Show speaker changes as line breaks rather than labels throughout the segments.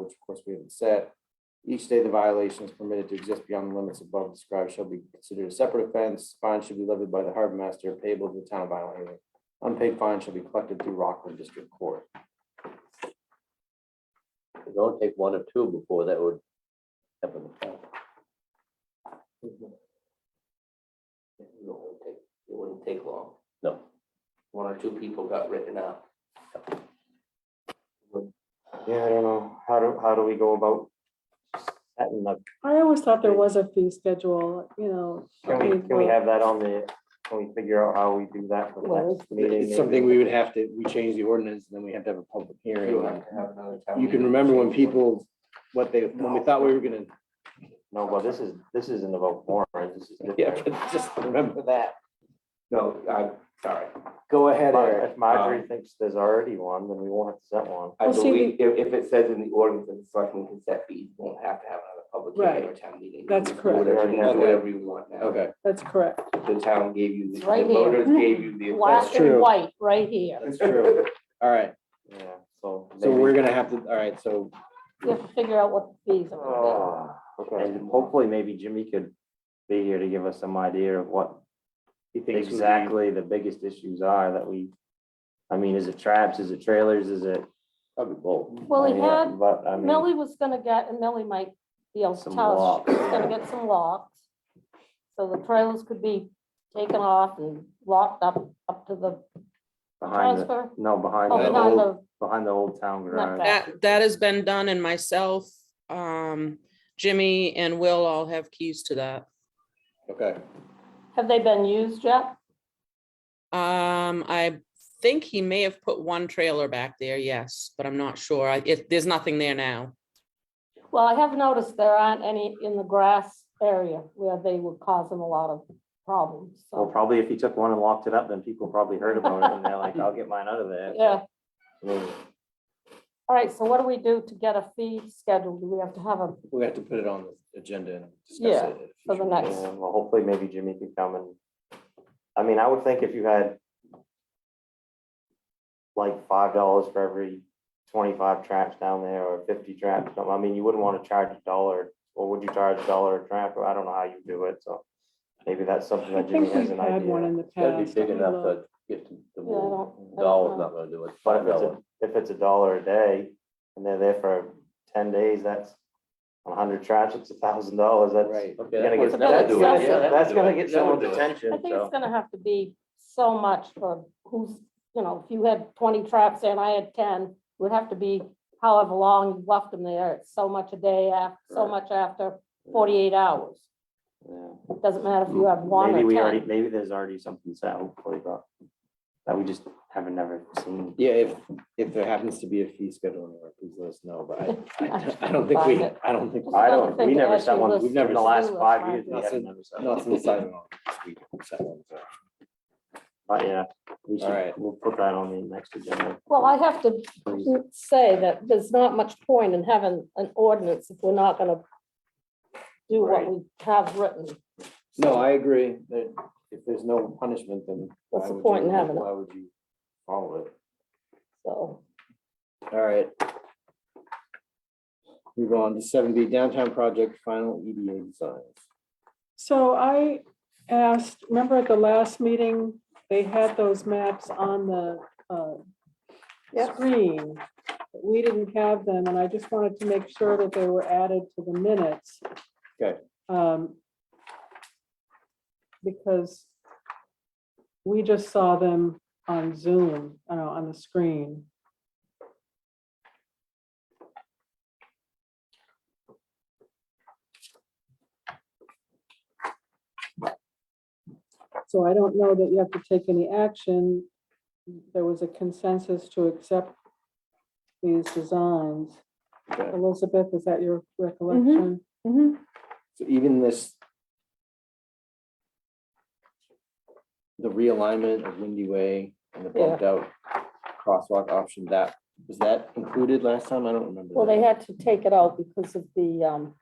which of course we haven't set. Each day the violation is permitted to exist beyond the limits above described shall be considered a separate offense. Fine should be levied by the harbor master payable to the town of Island Haven. Unpaid fine shall be collected through Rockland District Court.
It only take one or two before that would happen. It
wouldn't take, it wouldn't take long.
No.
One or two people got written up.
Yeah, I don't know. How do, how do we go about setting up?
I always thought there was a fee schedule, you know.
Can we, can we have that on the, can we figure out how we do that for the next meeting?
It's something we would have to, we change the ordinance, and then we have to have a public
You'll have
hearing.
to have another town
You can
meeting.
remember when people, what they, when we thought we were gonna,
No, well, this is, this isn't about warrant, this is.
yeah,
different.
but just remember that.
No, I'm sorry.
Go ahead, Eric.
If Marjorie thinks there's already one, then we won't have to set one.
I
Well, see,
believe if, if it says in the ordinance that the selectmen can set fees, you won't have to have another public hearing or town meeting. You
That's
can do
correct.
Whatever, you
Okay.
want, whatever you want now.
Okay,
That's correct.
The town gave you, the
It's
the
right here.
voters gave you the.
Black
true.
and white, right here.
that's true. All right,
Yeah, so.
so
maybe-
we're gonna have to, all right, so,
You have to figure out what the fees are. gonna be.
Ah, Okay, and hopefully maybe Jimmy could be here to give us some idea of what
you think exactly,
exactly the biggest issues are that we. I mean, is it traps, is it trailers, is it?
Probably both.
Well,
I
he
mean, uh,
had,
But I mean,
Millie was gonna get, and Millie might be able to
Some
tell us,
locks.
she's gonna get some locks. So the trailers could be taken off and locked up, up to the
behind the,
transfer.
no, behind
Oh,
that
behind
the,
the,
behind the old town garage.
that.
That, that has been done and myself, um, Jimmy and Will all have keys to that.
okay,
have they been used yet?
Um, I think he may have put one trailer back there, yes, but I'm not sure. I, it, there's nothing there now.
Well, I have noticed there aren't any in the grass area where they would cause them a lot of problems,
Well,
so,
probably if he took one and locked it up, then people probably heard about it and they're like, I'll get mine out of there.
yeah.
I mean,
All right, so what do we do to get a fee scheduled? Do we have to have a,
we have to put it on the agenda and discuss
Yeah,
it. at a
for the
future
next-
meeting.
Yeah, Well, hopefully maybe Jimmy could come and, I mean, I would think if you had like five dollars for every twenty-five traps down there or fifty traps, something, I mean, you wouldn't want to charge a dollar, or would you charge a dollar a trap? Or I don't know how you do it, so maybe that's something
I
that Jimmy
think
has
we've
an
had one
idea.
in the
Gotta be
past.
big
Let me
enough
look.
to get to the
yeah, I
move.
don't. I don't
Dollars
know.
not gonna do it.
But if it's
Dollar.
a, if it's a dollar a day and they're there for ten days, that's a hundred traps, it's a thousand dollars, that's.
Right.
Okay,
You're
that
gonna get-
would- that would do it.
That's-
Yeah, that would
That's
do
gonna
it.
get
That would
someone's
do it.
attention,
I think
so.
it's gonna have to be so much for who's, you know, if you had twenty traps there and I had ten, it would have to be however long you left them there, it's so much a day after, so
Right.
much after forty-eight hours.
Yeah.
It doesn't matter if you have one
Maybe
or
we already,
ten.
maybe there's already something set hopefully, but that we just haven't never seen.
Yeah, if, if there happens to be a fee schedule anywhere, please let us know, but I, I I don't think we, I don't think,
Just
I
another
don't,
thing
we
to
never
add to
set
your
one,
list
we've never, in the
of
last
to-do list,
five
right?
years, we
Not
haven't
since-
never set
not
one.
since I've been on this week, so,
But yeah, we should,
Alright.
we'll put that on the next agenda.
Well, I have to
please.
say that there's not much point in having an ordinance if we're not gonna do what
Right.
we have written.
No, I agree that if there's no punishment, then. why
What's the
would you-
point in having it?
Why would you follow it?
So,
All right. Move on to seven B downtown project final EDA designs.
So I asked, remember at the last meeting, they had those maps on the uh, screen. but We didn't have them, and I just wanted to make sure that they were added to the minutes.
Okay.
Um, Because we just saw them on Zoom, uh, on the screen. So I don't know that you have to take any action. There was a consensus to accept these designs.
Okay.
Elizabeth, is that your recollection?
So even this. The realignment of Windy Way and the bumped out crosswalk option, that, was that included last time? I don't remember.
well,
that.
they had to take it out because of the, um,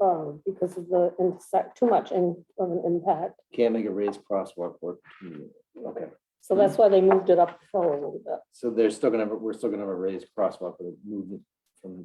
uh, because of the, intersect- too much in, of an impact.
Can't make a raised crosswalk work. Okay,
So that's why they moved it up the hill a little bit.
so they're still gonna, have a- we're still gonna have a raised crosswalk, but move it